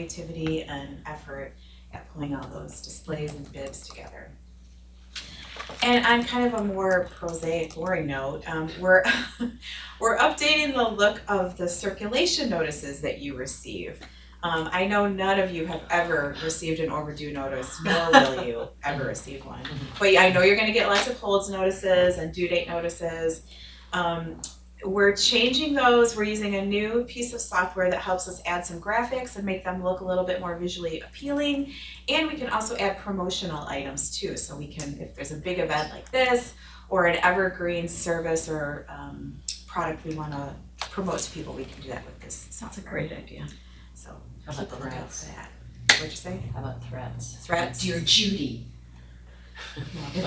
creativity and effort at pulling all those displays and bids together. And on kind of a more prosaic, boring note, um, we're, we're updating the look of the circulation notices that you receive. Um, I know none of you have ever received an overdue notice, nor will you ever receive one. But I know you're gonna get lots of holds notices and due date notices. Um, we're changing those, we're using a new piece of software that helps us add some graphics and make them look a little bit more visually appealing. And we can also add promotional items too, so we can, if there's a big event like this, or an evergreen service or um product we wanna promote to people, we can do that with this Sounds a software. great idea. So How keep about a lookout threats? for that. What'd you say? How about threats? Threats? Dear Judy.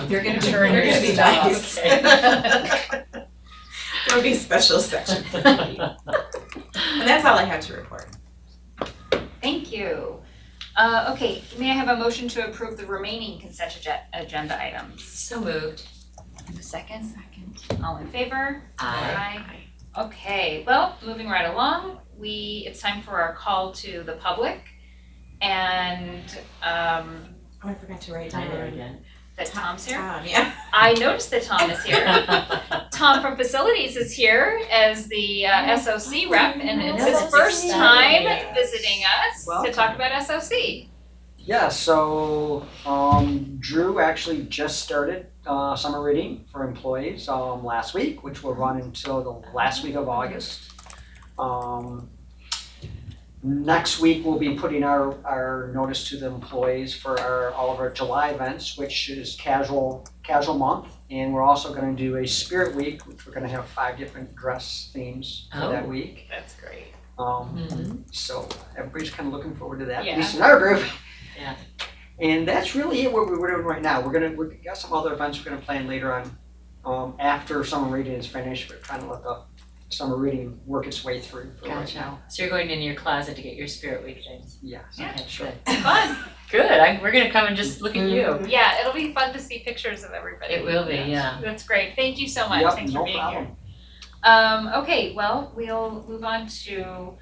They're gonna be, Turn they're your gonna be stuff. nice. There'll be a special section for Judy. And that's all I have to report. Thank you. Uh, okay, may I have a motion to approve the remaining consent agen- agenda items? So moved. Second, Second. all in favor? Aye. Aye. Okay, well, moving right along, we, it's time for our call to the public. And, um, Oh, I forgot to write I did down. again. that Tom's here. Tom, yeah. I noticed that Tom is here. Tom from Facilities is here as the Oh, uh, SOC rep, and it's his That's first time exciting. visiting us to Welcome. talk about SOC. Yeah, so um, Drew actually just started uh, summer reading for employees um, last week, which will run until the last week of August. Um, next week, we'll be putting our, our notice to the employees for our, all of our July events, which is casual casual month. And we're also going to do a Spirit Week, which we're going to have five different dress themes for that Oh. Mm-hmm. week. That's great. Um, so everybody's kind of looking forward to that, Yeah. at least in our group. Yeah. And that's really it, what we're doing right now. We're gonna, we've got some other events we're gonna plan later on. Um, after summer reading is finished, we're trying to let the summer reading work its way through for right Gotcha. now. So you're going into your closet to get your spirit week things. Yeah. so- Yeah. Okay, Sure. good. Fun. Good, I, we're gonna come and just look at you. Yeah, it'll be fun to see pictures of everybody. It will be, yeah. That's great. Thank you so much. Yep, Thanks no for being problem. here. Um, okay, well, we'll move on to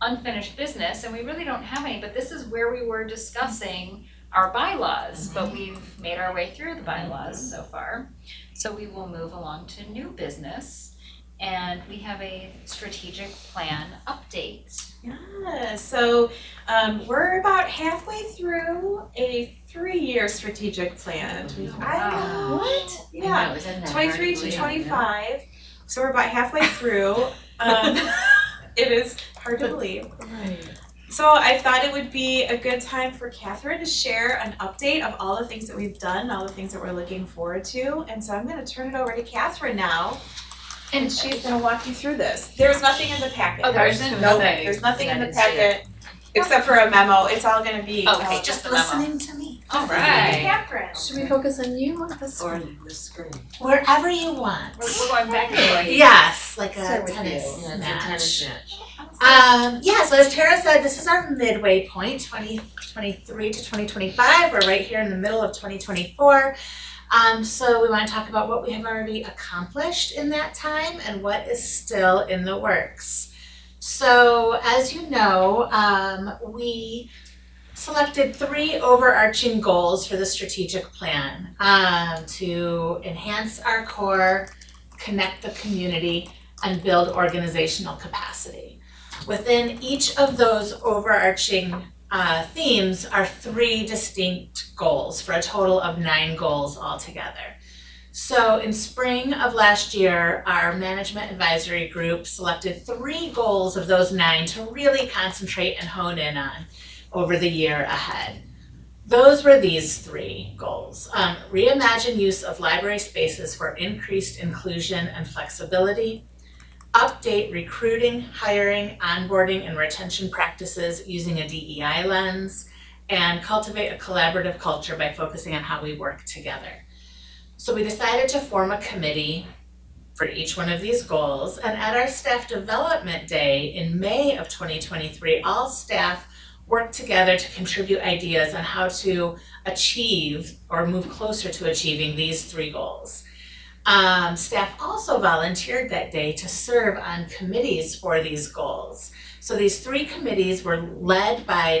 unfinished business, and we really don't have any, but this is where we were discussing our Mm-hmm. bylaws, but we've made our way through the bylaws so far. So we will move along to new business, and we have a strategic plan update. Yeah, Ah, so um we're about halfway through a three-year strategic plan. We- I know, Wow. what? I Yeah. know, isn't that hard twenty-three to believe? twenty-five, so we're about halfway through. Um, it is hard to believe. So I thought it would be a good time for Catherine to share an update of all the things that we've done, all the things that we're looking forward to. And so I'm gonna turn it over to Catherine now, and she's gonna walk you through this. There's nothing in the packet. Oh, there isn't? No, Okay. there's nothing in I the didn't see it. packet, except for a memo. It's all gonna be. Okay, Oh, uh, just the memo. to me. All Hey, right. Catherine, Should we focus on you or the Or screen? the screen. Wherever you want. We're, we're going back and forth. Yes, like Start a with tennis you. Yeah, it's a tennis match. match. Um, yeah, so as Tara said, this is our midway point, 2023 to 2025. We're right here in the middle of 2024. Um, so we want to talk about what we have already accomplished in that time and what is still in the works. So, as you know, um, we selected three overarching goals for the strategic plan um, to enhance our core, connect the community, and build organizational capacity. Within each of those overarching uh, themes are three distinct goals for a total of nine goals altogether. So in spring of last year, our management advisory group selected three goals of those nine to really concentrate and hone in on over the year ahead. Those were these three goals. Um, reimagine use of library spaces for increased inclusion and flexibility, update recruiting, hiring, onboarding, and retention practices using a DEI lens, and cultivate a collaborative culture by focusing on how we work together. So we decided to form a committee for each one of these goals, and at our staff development day in May of 2023, all staff worked together to contribute ideas on how to achieve or move closer to achieving these three goals. Um, staff also volunteered that day to serve on committees for these goals. So these three committees were led by